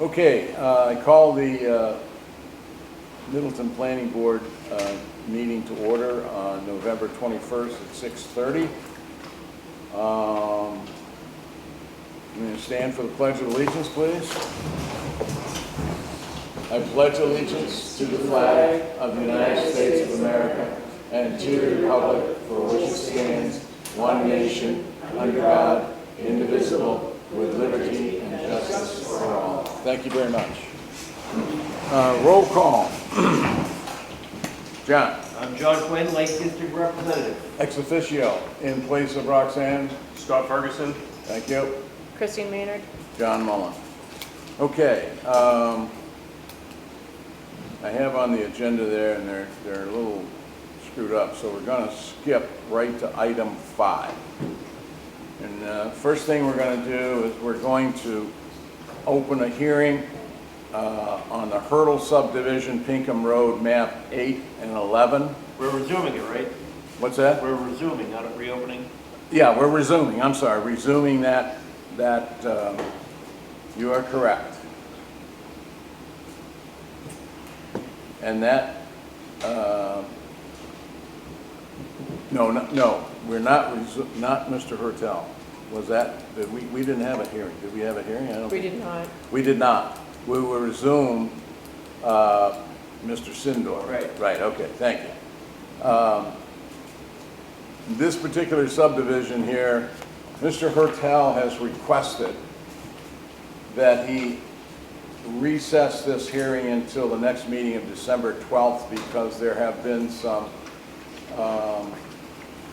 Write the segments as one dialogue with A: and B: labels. A: Okay, uh, I call the uh, Middleton Planning Board uh, meeting to order on November 21st at 6:30. Um, I'm going to stand for the Pledge of Allegiance, please. I pledge allegiance to the flag of the United States of America and to the republic for which it stands, one nation, under God, indivisible, with liberty and justice for all. Thank you very much. Uh, Roll call. John,
B: I'm John Quinn, Lake District Representative.
A: ex officio, in place of Roxanne.
B: Scott Ferguson.
A: Thank you.
C: Christine Maynard?
A: John Mullen. Okay, um, I have on the agenda there, and they're, they're a little screwed up, so we're gonna skip right to item five. And, uh, first thing we're gonna do is we're going to open a hearing, uh, on the Hurdle subdivision, Pinkham Road, map eight and eleven.
B: We're resuming it, right?
A: What's that?
B: We're resuming, not reopening.
A: Yeah, we're resuming, I'm sorry, resuming that, that, um, you are correct. And that, uh, no, no- no, we're not, resu- not Mr. Hertel. Was that, did we, we didn't have a hearing, did we have a hearing? I don't
C: We
A: think-
C: did not.
A: We did not. We will resume, uh, Mr. Sindor.
B: Right.
A: Right, okay, thank you. Um, This particular subdivision here, Mr. Hertel has requested that he recess this hearing until the next meeting of December 12th because there have been some um,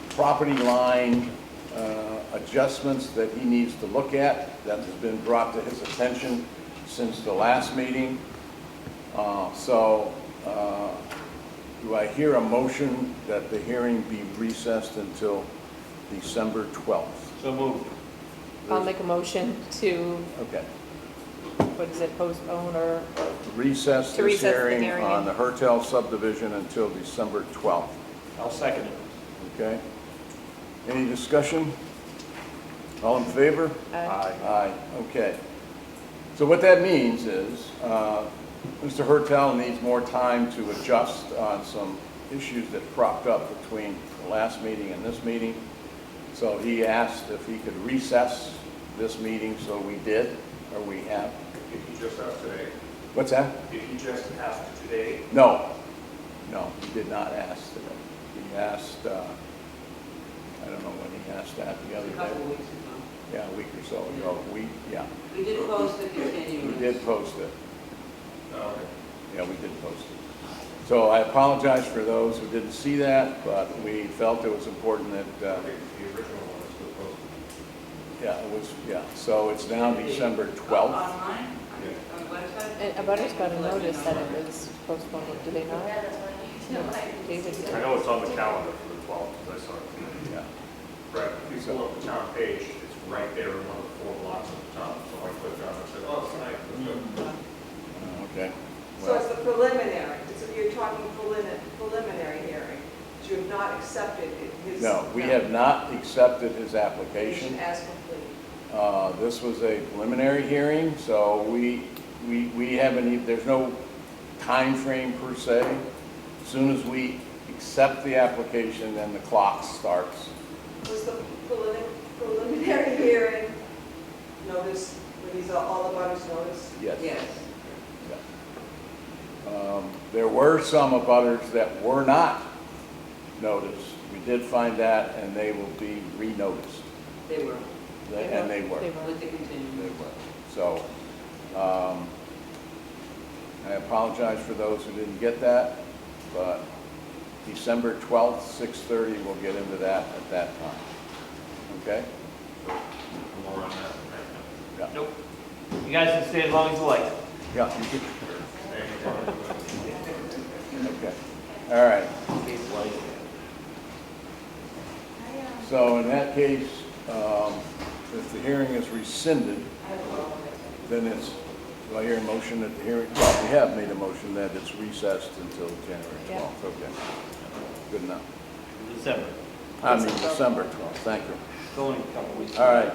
A: property line uh, adjustments that he needs to look at that has been brought to his attention since the last meeting. Uh, So uh, do I hear a motion that the hearing be recessed until December 12th?
B: So moved.
C: I'll make a motion to,
A: Okay.
C: what is it, postpone or,
A: Recess
C: To
A: this
C: recess the
A: hearing
C: hearing.
A: on the Hertel subdivision until December 12th,
B: I'll second it.
A: okay? Any discussion? All in favor?
C: uh,
A: Aye, okay. So what that means is, uh, Mr. Hertel needs more time to adjust on some issues that cropped up between the last meeting and this meeting. So he asked if he could recess this meeting, so we did, or we have.
D: If you just asked today,
A: What's that?
D: if you just asked today,
A: No, no, he did not ask today. He asked, uh, I don't know when he asked that the other
E: A couple
A: day.
E: weeks ago.
A: Yeah, a week or so ago, we, yeah,
E: We did post the
A: we
E: continuance.
A: did post it.
D: uh,
A: Yeah, we did post it. So I apologize for those who didn't see that, but we felt it was important that,
D: I
A: uh,
D: think the original one is still posted.
A: yeah, it was, yeah, so it's now December
F: Uh-huh.
A: 12th.
E: Online, on the website.
C: and Abutters got a notice that it was postponed, do they not? No, David did.
G: I know it's on the calendar for the 12th, because I saw it.
A: Yeah.
D: Right, if you go up the town page, it's right there in one of the four blocks at the top, so I clicked on it and said, oh, it's nice, let's go.
A: Oh, Okay.
F: So it's
A: Well,
F: the preliminary, it's, you're talking prelimi- preliminary hearing, but you have not accepted his.
A: No, we have not accepted his application.
F: Application as complete.
A: Uh, This was a preliminary hearing, so we, we, we haven't, e- there's no time frame per se. As Soon as we accept the application, then the clock starts.
F: Was the prelim- preliminary hearing notice, were these all- all the butters notice?
A: Yes.
E: Yes.
A: Um, There were some abutters that were not noticed. We did find that, and they will be re-noticed,
E: They were,
A: They- and they were.
C: They
E: with the
A: They
E: continuance.
A: were. So, um, I apologize for those who didn't get that, but December 12th, 6:30, we'll get into that at that time. Okay?
D: More on that. right?
A: Yeah.
B: Nope. You guys can stay as long as you like.
A: Yeah, you could-
D: Thank you, Ron.
A: okay. All right. So in that case, um, if the hearing is rescinded, then it's, do I hear a motion that the hearing, well, we have made a motion that it's recessed until January
C: Yeah.
A: 12th, okay. Good enough.
B: December.
A: I mean, December 12th, thank you.
B: It's only a couple weeks.
A: All right,